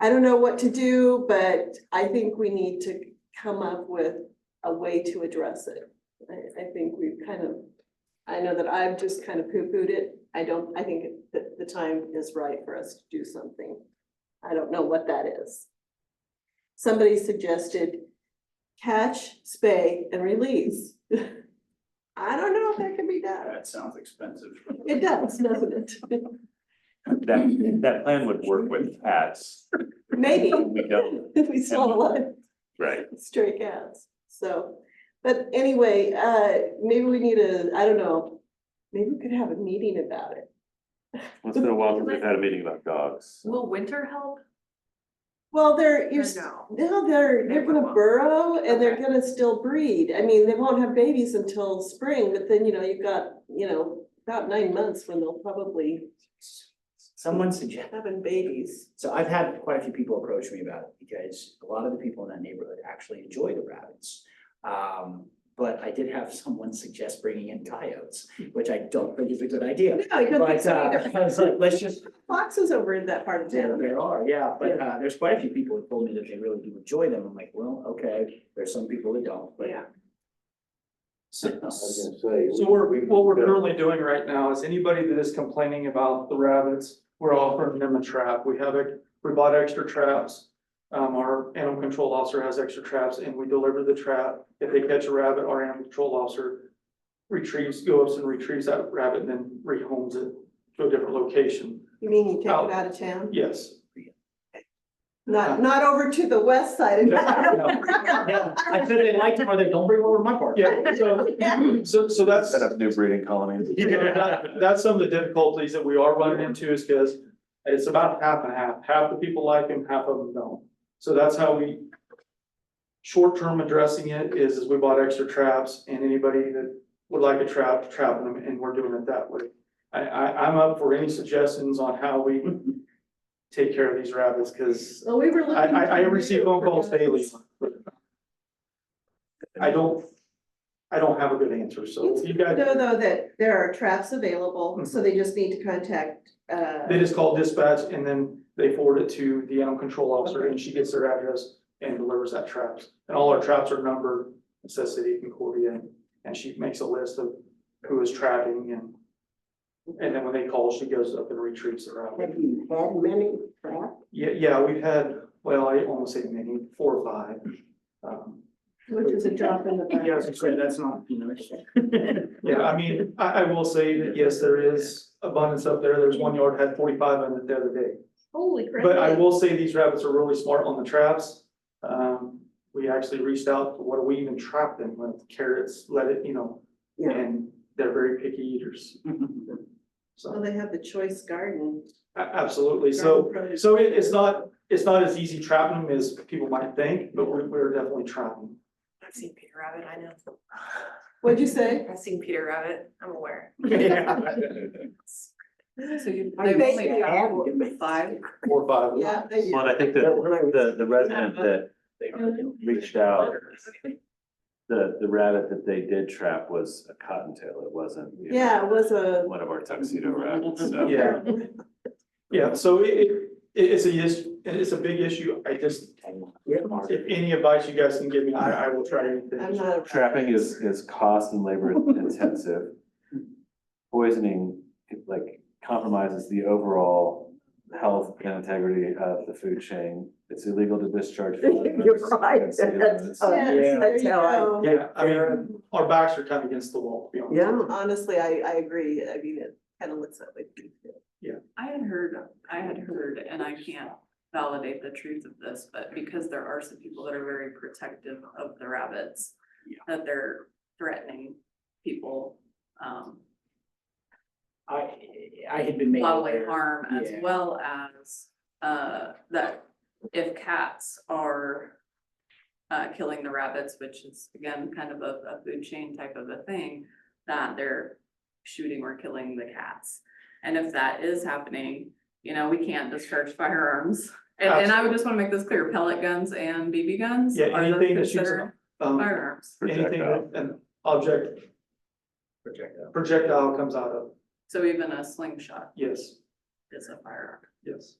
I don't know what to do, but I think we need to come up with a way to address it. I, I think we've kind of, I know that I've just kind of poo-pooed it. I don't, I think that the time is right for us to do something. I don't know what that is. Somebody suggested catch, spay, and release. I don't know if that can be done. That sounds expensive. It does, doesn't it? That, that plan would work with cats. Maybe. We don't. If we still have a lot of Right. stray cats, so. But anyway, uh, maybe we need a, I don't know, maybe we could have a meeting about it. Once in a while, we've had a meeting about dogs. Will winter help? Well, they're, or you're, s- no? no, they're, they're gonna burrow and they're Okay. gonna still breed. I mean, they won't have babies until spring, but then, you know, you've got, you know, about nine months when they'll probably Someone suggest, having babies. so I've had quite a few people approach me about it because a lot of the people in that neighborhood actually enjoy the rabbits. Um, but I did have someone suggest bringing in coyotes, which I don't think is a good idea. No, you don't But, think so uh, either. I was like, let's just, Foxes over in that part of there, town. there are, yeah, but, uh, there's quite a few people who told me that they really do enjoy them. I'm like, well, okay, there's some people that don't, but. Yeah. So, say. so we're, what we're currently doing right now is anybody that is complaining about the rabbits, we're offering them a trap. We have it, we bought extra traps. Um, our animal control officer has extra traps and we deliver the trap. If they catch a rabbit, our animal control officer retrieves, goes and retrieves that rabbit and then rehomes it to a different location. You mean you take it Oh. Out. out of town? Yes. Not, not over to the west side of town. No, Yeah, I said they liked them, or they don't bring over to my park. Yeah, so, so, so that's. Set up new breeding colonies. Yeah, that- that's some of the difficulties that we are running into is because it's about half and half, half the people like them, half of them don't. So that's how we. Short-term addressing it is, is we bought extra traps and anybody that would like a trap, trapping them, and we're doing it that way. I, I, I'm up for any suggestions on how we take care of these rabbits, because Well, we were I, looking. I, I for receive new phone calls daily. programs. I don't, I don't have a good answer, so if you guys. Know though that there are traps available, so they just need to contact, uh. They just call dispatch and then they forward it to the animal control officer and she gets their address and delivers that traps. And all our traps are numbered, it says City of Concordia, and- and she makes a list of who is trapping and. And then when they call, she goes up and retrieves the rabbit. Have you had many trapped? Yeah, yeah, we've had, well, I almost say many, four or five. Um, Which is a drop in the bucket. Yeah, I was gonna say, that's not, you know. Yeah, I mean, I, I will say that, yes, there is abundance up there. There's one yard had forty-five in it the other day. Holy crap. But I will say these rabbits are really smart on the traps. Um, we actually reached out, what do we even trap them with carrots, let it, you know, and they're very picky eaters. Well, So, they have the choice garden. a- absolutely. So, so it, it's not, it's not as easy trapping them as people might think, but we're, we're definitely trapping. I've seen Peter Rabbit, I know. What'd you say? I've seen Peter Rabbit, I'm aware. So you. I They- think I have them. Five. Four or five. Yeah. they- Well, and I think that the, the resident that They are doing. reached out, the, the rabbit that they did trap was a cottontail. It wasn't. you know, Yeah, it was a. One of our tuxedo rabbits, so. Yeah. Yeah, so it, it, it's a, yes- it's a big issue. I just, if any advice you guys can give me, I, I will try anything. I'm not. a- Trapping is, is cost and labor intensive. Poisoning, like compromises the overall health and integrity of the food chain. It's illegal to discharge. food. You're right. It's- it's- Oh, Yes, yeah. there That's you how I- go. Yeah, I mean, our backs are kind of against the wall, to be honest. Yeah. Honestly, I, I agree. I mean, it kind of looks that way. I had heard, I had heard, and I can't validate the truth of this, but because there are some people that are very protective of the rabbits. Yeah. That they're threatening people, um, I, I had been made. bodily aware. harm as yeah. well as, uh, that if cats are. Uh, killing the rabbits, which is again kind of a, a food chain type of a thing, that they're shooting or killing the cats. And if that is happening, you know, we can't discharge firearms. And, and I would just wanna make this clear, pellet guns and BB guns Yeah, are those anything that shoots considered Um, firearms. anything Projectile. that an object Projectile. projectile comes out of, So even a slingshot yes, is a firearm. yes.